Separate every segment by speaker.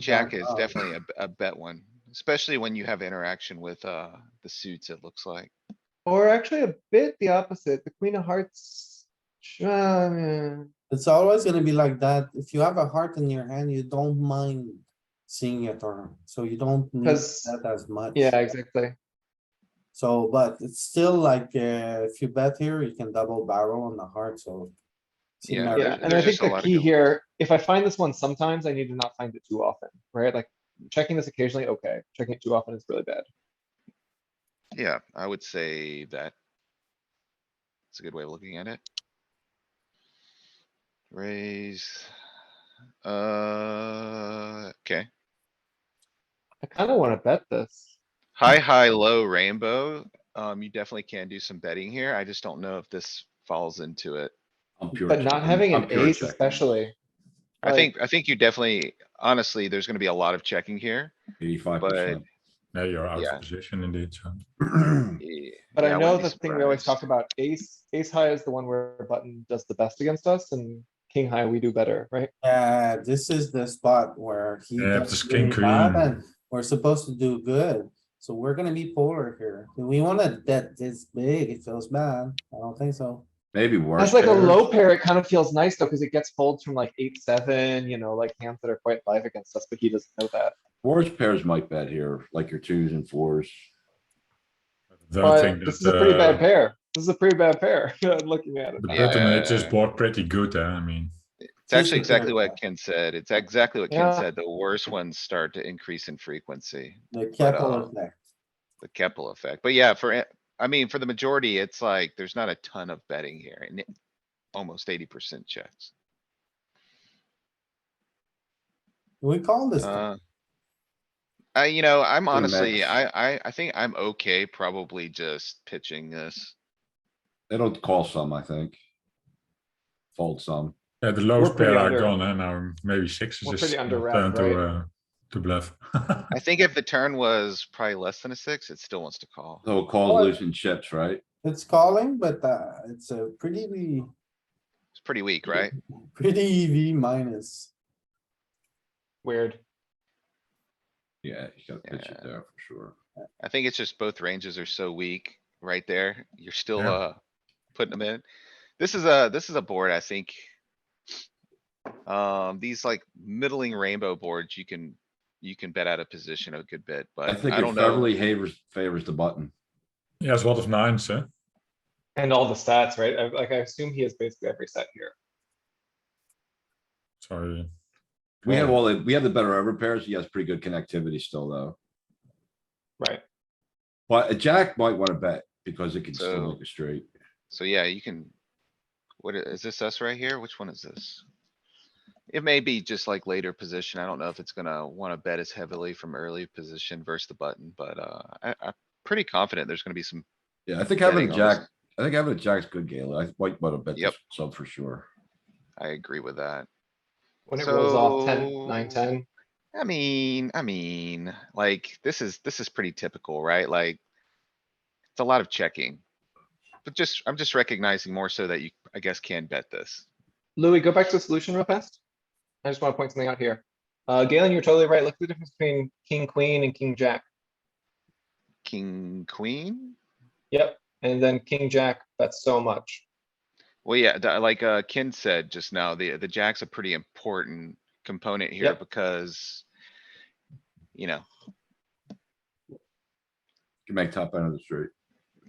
Speaker 1: Jack is
Speaker 2: uh,
Speaker 1: definitely a, a bet one, especially when you have interaction with, uh, the suits, it looks like.
Speaker 2: Or actually a bit the opposite, the queen of hearts. uh,
Speaker 3: It's always gonna be like that. If you have a heart in your hand, you don't mind seeing a turn, so you don't need
Speaker 2: 'Cause-
Speaker 3: that as much.
Speaker 2: Yeah, exactly.
Speaker 3: So, but it's still like, uh, if you bet here, you can double barrel on the heart, so.
Speaker 1: Yeah,
Speaker 3: Seems
Speaker 2: Yeah,
Speaker 3: like-
Speaker 2: and I
Speaker 1: there's
Speaker 2: think
Speaker 1: just a lot
Speaker 2: the
Speaker 1: of
Speaker 2: key
Speaker 1: good ones.
Speaker 2: here, if I find this one sometimes, I need to not find it too often, right? Like checking this occasionally, okay. Checking it too often is really bad.
Speaker 1: Yeah, I would say that. It's a good way of looking at it. Raise. Uh, okay,
Speaker 2: I kinda wanna bet this.
Speaker 1: high, high, low rainbow. Um, you definitely can do some betting here. I just don't know if this falls into it.
Speaker 4: I'm pure
Speaker 2: But not
Speaker 4: checking.
Speaker 2: having
Speaker 4: I'm
Speaker 2: an
Speaker 4: pure
Speaker 2: ace
Speaker 4: checking.
Speaker 2: especially.
Speaker 1: I
Speaker 2: Like-
Speaker 1: think, I think you definitely, honestly, there's gonna be a lot of checking here.
Speaker 4: Eighty-five percent.
Speaker 5: Yeah, you're out
Speaker 1: Yeah.
Speaker 5: of position indeed, so.
Speaker 1: Eh, yeah,
Speaker 2: But I know
Speaker 1: wouldn't be
Speaker 2: the thing we always
Speaker 1: surprised.
Speaker 2: talk about, ace, ace high is the one where button does the best against us and king high, we do better, right?
Speaker 3: Uh, this is the spot where he.
Speaker 5: Yeah,
Speaker 3: does
Speaker 5: just king
Speaker 3: really bad
Speaker 5: queen.
Speaker 3: and We're supposed to do good, so we're gonna be polar here. Do we wanna bet this big? It feels bad. I don't think so.
Speaker 4: Maybe worse.
Speaker 2: That's like a
Speaker 4: pairs.
Speaker 2: low pair, it kind of feels nice though, cuz it gets folds from like eight, seven, you know, like hands that are quite live against us, but he doesn't know that.
Speaker 4: Worse pairs might bet here, like your twos and fours.
Speaker 5: Don't
Speaker 2: But
Speaker 5: think
Speaker 2: this is
Speaker 5: that,
Speaker 2: a pretty
Speaker 5: uh,
Speaker 2: bad pair. This is a pretty bad pair, looking at it.
Speaker 5: The
Speaker 1: Yeah.
Speaker 5: button edge is board pretty good, eh, I mean.
Speaker 1: It's actually
Speaker 3: Just looking
Speaker 1: exactly
Speaker 3: at
Speaker 1: what
Speaker 3: that.
Speaker 1: Ken said. It's exactly what Ken
Speaker 2: Yeah.
Speaker 1: said. The worst ones start to increase in frequency,
Speaker 3: The capital
Speaker 1: uh,
Speaker 3: effect.
Speaker 1: the Keppel effect. But yeah, for, a- I mean, for the majority, it's like, there's not a ton of betting here and it- almost eighty percent checks.
Speaker 3: We call this.
Speaker 1: Uh, I, you know, I'm
Speaker 4: Pretty
Speaker 1: honestly,
Speaker 4: max.
Speaker 1: I, I, I think I'm okay probably just pitching this.
Speaker 4: It'll call some, I think. Fold some.
Speaker 5: Yeah, the lowest
Speaker 2: pretty
Speaker 5: pair are
Speaker 2: under-
Speaker 5: gone, and now maybe sixes
Speaker 2: We're
Speaker 5: is
Speaker 2: pretty under wrap,
Speaker 5: turned to,
Speaker 2: right?
Speaker 5: uh, to bluff.
Speaker 1: I think if the turn was probably less than a six, it still wants to call.
Speaker 4: It'll call
Speaker 3: Well-
Speaker 4: losing chips, right?
Speaker 3: It's calling, but uh, it's a pretty,
Speaker 1: It's pretty weak, right?
Speaker 3: pretty EV minus.
Speaker 2: Weird.
Speaker 4: Yeah, you gotta pitch it
Speaker 1: Yeah.
Speaker 4: there for sure.
Speaker 1: I think it's just both ranges are so weak right there. You're still,
Speaker 5: Yeah.
Speaker 1: uh, putting them in. This is a, this is a board, I think. Um, these like middling rainbow boards, you can, you can bet out of position a good bit,
Speaker 4: I
Speaker 1: but
Speaker 4: think
Speaker 1: I
Speaker 4: it
Speaker 1: don't know.
Speaker 4: heavily favors, favors the button.
Speaker 5: Yeah, it's a lot of nines, eh?
Speaker 2: And all the stats, right? I- Like I assume he has basically every set here.
Speaker 5: Sorry.
Speaker 4: We have
Speaker 5: Yeah.
Speaker 4: all the, we have the better over pairs. He has pretty good connectivity still, though.
Speaker 2: Right.
Speaker 4: But a jack might wanna bet because it can still
Speaker 1: So-
Speaker 4: make a straight.
Speaker 1: So yeah, you can. What i- is this us right here? Which one is this? It may be just like later position. I don't know if it's gonna wanna bet as heavily from early position versus the button, but, uh, I, I'm pretty confident there's gonna be some.
Speaker 4: Yeah, I think having
Speaker 1: betting
Speaker 4: a
Speaker 1: on
Speaker 4: jack,
Speaker 1: this.
Speaker 4: I think having a jack's good, Galen. I might wanna bet
Speaker 1: Yep.
Speaker 4: this sub for sure.
Speaker 1: I agree with that.
Speaker 2: When it rolls off
Speaker 1: So-
Speaker 2: ten, nine, ten,
Speaker 1: I mean, I mean, like, this is, this is pretty typical, right? Like. It's a lot of checking. But just, I'm just recognizing more so that you, I guess, can bet this.
Speaker 2: Louis, go back to the solution real fast. I just wanna point something out here. Uh, Galen, you're totally right. Look at the difference between king, queen and king, jack.
Speaker 1: King, queen?
Speaker 2: Yep. And then king, jack, that's so much.
Speaker 1: Well, yeah, th- like, uh, Ken said just now, the, the jack's a pretty important component here
Speaker 2: Yep.
Speaker 1: because. You know,
Speaker 4: Can make top end of the straight.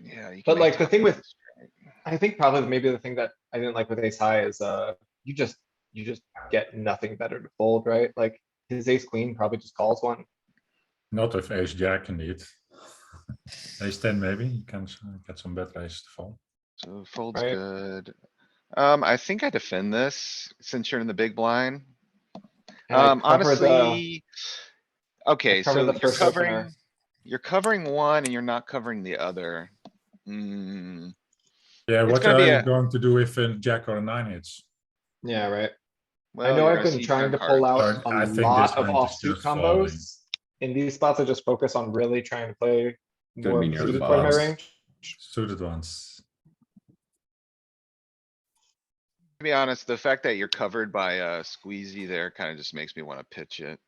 Speaker 1: yeah. you can
Speaker 2: But,
Speaker 1: make
Speaker 2: like, the
Speaker 1: top
Speaker 2: thing with-
Speaker 1: ends, right?
Speaker 2: I think probably maybe the thing that I didn't like with ace high is, uh, you just, you just get nothing better to fold, right? Like his ace queen probably just calls one.
Speaker 5: Not with ace jack indeed. Ace ten maybe, you can s- get some better aces to fall.
Speaker 1: So fold's
Speaker 2: Right.
Speaker 1: good. Um, I think I defend this since you're in the big blind.
Speaker 2: And I
Speaker 1: Um,
Speaker 2: cover the-
Speaker 1: honestly. Okay,
Speaker 2: cover
Speaker 1: so
Speaker 2: the
Speaker 1: you're
Speaker 2: first opener.
Speaker 1: covering, you're covering one and you're not covering the other. Hmm,
Speaker 5: Yeah,
Speaker 1: It's
Speaker 5: what
Speaker 1: gonna
Speaker 5: are
Speaker 1: be
Speaker 5: you
Speaker 1: a-
Speaker 5: going to do if a jack or a nine hits?
Speaker 2: Yeah, right. I
Speaker 1: well, E
Speaker 2: know
Speaker 1: you're
Speaker 2: I've
Speaker 1: gonna
Speaker 2: been
Speaker 1: see
Speaker 2: trying
Speaker 1: turn
Speaker 2: to pull
Speaker 1: cards.
Speaker 2: out
Speaker 5: Turn- I
Speaker 2: a
Speaker 5: think this
Speaker 2: lot of
Speaker 5: hand is
Speaker 2: offsuit
Speaker 5: just falling.
Speaker 2: combos. In these spots, I just focus on really trying to play
Speaker 4: Gonna
Speaker 2: more
Speaker 4: be near the
Speaker 2: suited part of my
Speaker 5: bottom.
Speaker 2: range.
Speaker 5: Suited ones.
Speaker 1: uh, To be honest, the fact that you're covered by a squeezy there kinda just makes me wanna pitch it.